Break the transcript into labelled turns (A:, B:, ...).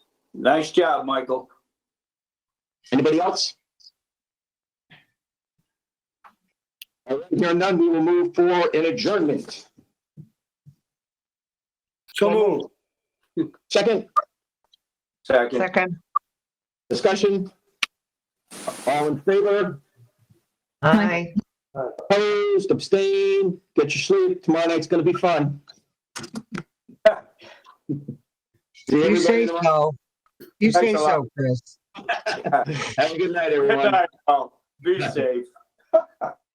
A: Nice job, Michael.
B: Anybody else? All right, Hearing none, we will move for an adjournment.
C: So moved.
B: Second,
A: Second.
D: Second.
B: discussion. All in favor,
D: Aye.
B: opposed, abstain, get your sleep. Tomorrow night's gonna be fun. See
D: You
B: everybody
D: say
B: tomorrow.
D: so. You say
A: Thanks a lot.
D: so, Chris.
B: Have a good night,
A: Good
B: everyone.
A: night, all. Be safe.